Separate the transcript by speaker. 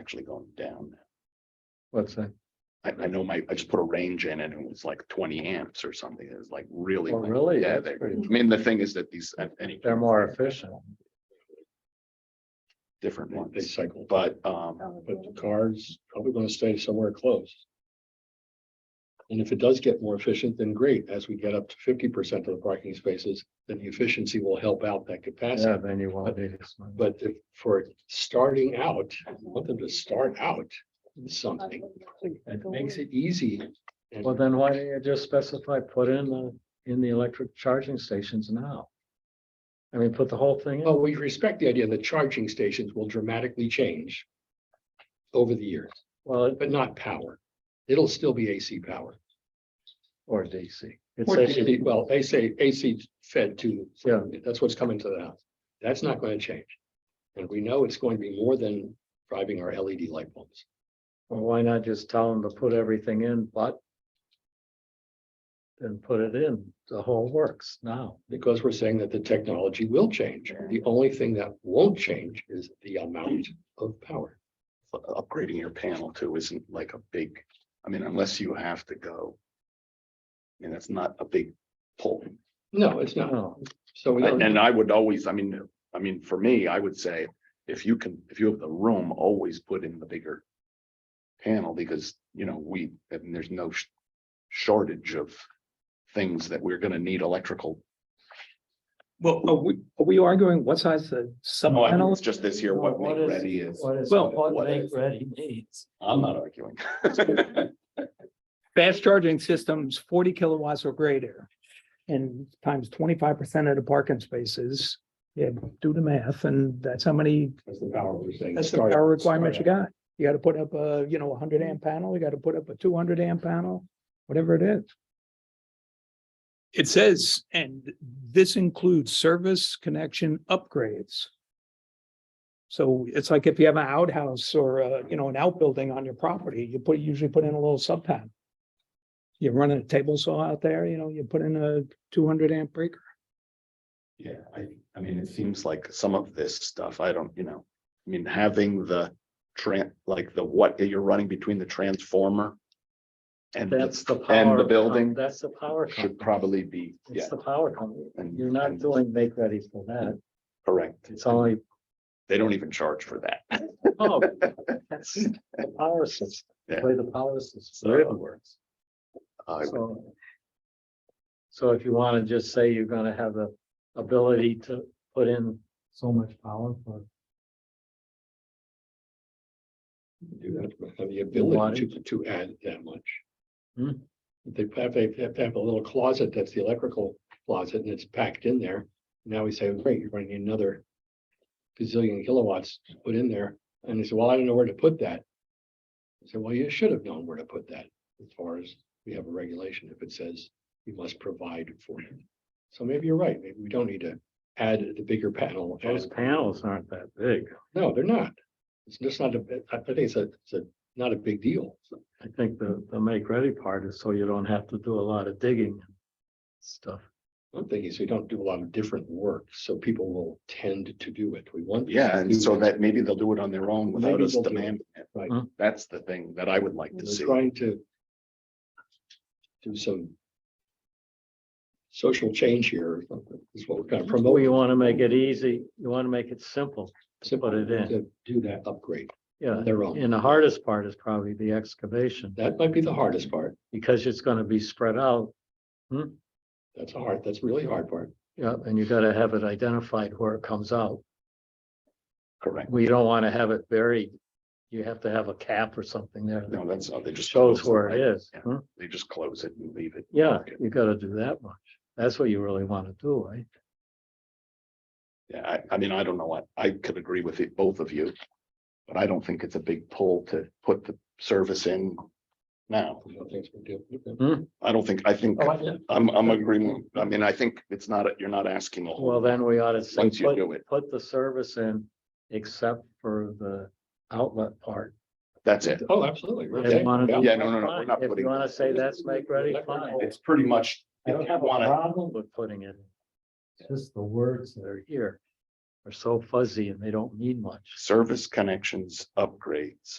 Speaker 1: actually going down.
Speaker 2: What's that?
Speaker 1: I, I know my, I just put a range in and it was like twenty amps or something. It was like really.
Speaker 2: Oh,
Speaker 1: like-
Speaker 2: really?
Speaker 1: Yeah,
Speaker 2: That's
Speaker 1: they- I
Speaker 2: pretty-
Speaker 1: mean, the thing is that these, at any
Speaker 2: They're more efficient.
Speaker 1: different
Speaker 3: They-
Speaker 1: ones.
Speaker 3: They cycle, but,
Speaker 1: But, um,
Speaker 2: Oh.
Speaker 3: but the car's probably gonna stay somewhere close. And if it does get more efficient, then great. As we get up to fifty percent of the parking spaces, then the efficiency will help out that
Speaker 2: Yeah,
Speaker 3: capacity.
Speaker 2: then you won't need as much.
Speaker 3: But if, for starting out,
Speaker 4: Uh,
Speaker 3: I want them to start out with something that makes it easy. and-
Speaker 2: Well, then why don't you just specify, put in the, in the electric charging stations now? I mean, put the whole thing in.
Speaker 4: Oh.
Speaker 3: Well, we respect the idea that charging stations will dramatically change over the years,
Speaker 2: Well, it-
Speaker 3: but not power. It'll still be AC power.
Speaker 2: or DC. It's
Speaker 3: Or
Speaker 2: actually,
Speaker 3: AC, Well, they say AC fed to,
Speaker 2: Yeah.
Speaker 3: that's what's coming to the house. That's not going to change. And we know it's going to be more than driving our LED light bulbs.
Speaker 2: well, why not just tell them to put everything in, but then put it in, the whole works now.
Speaker 3: Because we're saying that the technology will change. The only thing that won't change is the amount of power.
Speaker 1: upgrading your panel too isn't like a big, I mean, unless you have to go. I mean, that's not a big pull.
Speaker 3: No, it's not.
Speaker 2: No,
Speaker 3: So we
Speaker 1: And
Speaker 3: don't,
Speaker 1: and I would always, I mean, I mean, for me, I would say, if you can, if you have the room, always put in the bigger. Panel, because, you know, we, and there's no sh- shortage of things that we're gonna need electrical.
Speaker 4: Well, are we, are we arguing what size the sub
Speaker 1: Oh, I think
Speaker 4: panel?
Speaker 1: it's just this year, what
Speaker 2: Well, what
Speaker 1: Make
Speaker 2: is-
Speaker 1: ready is,
Speaker 2: what is,
Speaker 4: Well-
Speaker 2: what
Speaker 1: what
Speaker 2: make
Speaker 1: is-
Speaker 2: ready needs.
Speaker 1: I'm not arguing.
Speaker 4: Fast charging systems, forty kilowatts or greater. And times twenty-five percent of the parking spaces, yeah, do the math, and that's how many,
Speaker 3: that's the power we're saying.
Speaker 4: that's the
Speaker 3: Start-
Speaker 4: power requirement you
Speaker 3: start
Speaker 4: got. You gotta put up a, you know, a hundred amp panel, you gotta put up a two hundred amp panel, whatever it is. It says, and this includes service connection upgrades. So it's like if you have an outhouse or, uh, you know, an outbuilding on your property, you put, usually put in a little sub pad. You run a table saw out there, you know, you put in a two hundred amp breaker.
Speaker 1: Yeah, I, I mean, it seems like some of this stuff, I don't, you know, I mean, having the tran, like the what, you're running between the transformer. And that's,
Speaker 2: That's the power.
Speaker 1: and the
Speaker 2: com-
Speaker 1: building
Speaker 2: That's the power company.
Speaker 1: should probably be, yeah.
Speaker 2: It's the power company.
Speaker 1: and-
Speaker 2: You're not
Speaker 1: and-
Speaker 2: doing make ready for that.
Speaker 1: Correct.
Speaker 2: It's only
Speaker 1: They don't even charge for that.
Speaker 2: Oh, that's the power system,
Speaker 1: Yeah.
Speaker 2: play the power system.
Speaker 1: So-
Speaker 2: It works.
Speaker 1: I would-
Speaker 2: So- So if you want to just say you're gonna have the ability to put in so much power for,
Speaker 3: do that, Have
Speaker 2: Wattage.
Speaker 3: the ability to, to add that much.
Speaker 2: Hmm.
Speaker 3: They have, they have to have a little closet, that's the electrical closet, and it's packed in there. Now we say, great, you're running another gazillion kilowatts to put in there, and they say, well, I don't know where to put that. I say, well, you should have known where to put that, as far as we have a regulation, if it says you must provide for it. So maybe you're right, maybe we don't need to add the bigger panel.
Speaker 2: those
Speaker 3: add-
Speaker 2: panels aren't that big.
Speaker 3: no, they're not. It's just not a, I I think it's a, it's a, not a big deal.
Speaker 2: I think the, the make ready part is so you don't have to do a lot of digging and stuff.
Speaker 3: One thing is we don't do a lot of different work, so people will tend to do it. We want. them
Speaker 1: Yeah,
Speaker 3: to
Speaker 1: and
Speaker 3: do
Speaker 1: so
Speaker 3: it.
Speaker 2: Mm-hmm.
Speaker 1: that maybe they'll do it on their own without
Speaker 3: Maybe
Speaker 1: us
Speaker 3: they'll do it.
Speaker 1: demanding it.
Speaker 3: Right.
Speaker 2: Hmm.
Speaker 1: That's the thing that I would like to see.
Speaker 3: We're trying to do some social change here or something, is what we're kind of
Speaker 2: Well,
Speaker 3: promoting.
Speaker 2: you want to make it easy, you want to make it simple.
Speaker 3: to
Speaker 2: put it in. Uh,
Speaker 3: To do that upgrade
Speaker 2: Yeah,
Speaker 3: on their own.
Speaker 2: and the hardest part is probably the excavation,
Speaker 3: That might be the hardest part.
Speaker 2: because it's gonna be spread out
Speaker 3: That's a hard, that's really hard part.
Speaker 2: Yeah, and you gotta have it identified where it comes out.
Speaker 1: Correct.
Speaker 2: We don't wanna have it buried. You have to have a cap or something there that
Speaker 1: No, that's, not- they just.
Speaker 2: shows
Speaker 1: close the
Speaker 2: where it
Speaker 1: pipe.
Speaker 2: is.
Speaker 1: Yeah.
Speaker 2: huh?
Speaker 1: They just close it and leave it.
Speaker 2: Yeah, you gotta do that much. That's what you really wanna do, right?
Speaker 1: Yeah, I, I mean, I don't know what, I could agree with it, both of you. But I don't think it's a big pull to put the service in now.
Speaker 3: I don't think it's gonna do it. Okay.
Speaker 1: I don't think, I think,
Speaker 2: Oh, I-
Speaker 1: I'm, I'm agreeing, I mean, I think it's not, you're not asking a whole.
Speaker 2: Well, then we ought to say,
Speaker 1: Once you
Speaker 2: put,
Speaker 1: do it,
Speaker 2: put the service in, except for the outlet part.
Speaker 1: that's it.
Speaker 3: Oh, absolutely.
Speaker 2: If
Speaker 3: Okay.
Speaker 2: you wanna do
Speaker 1: Yeah,
Speaker 2: that,
Speaker 1: no, no, no, we're
Speaker 2: fine.
Speaker 1: not
Speaker 2: If
Speaker 1: putting-
Speaker 2: you wanna say that's make ready,
Speaker 3: Make ready.
Speaker 2: fine.
Speaker 1: It's pretty much,
Speaker 2: I
Speaker 1: if
Speaker 2: don't
Speaker 1: you
Speaker 2: have a
Speaker 1: wanna-
Speaker 2: problem with putting it. in. Just the words that are here are so fuzzy and they don't mean much.
Speaker 1: service connections upgrades.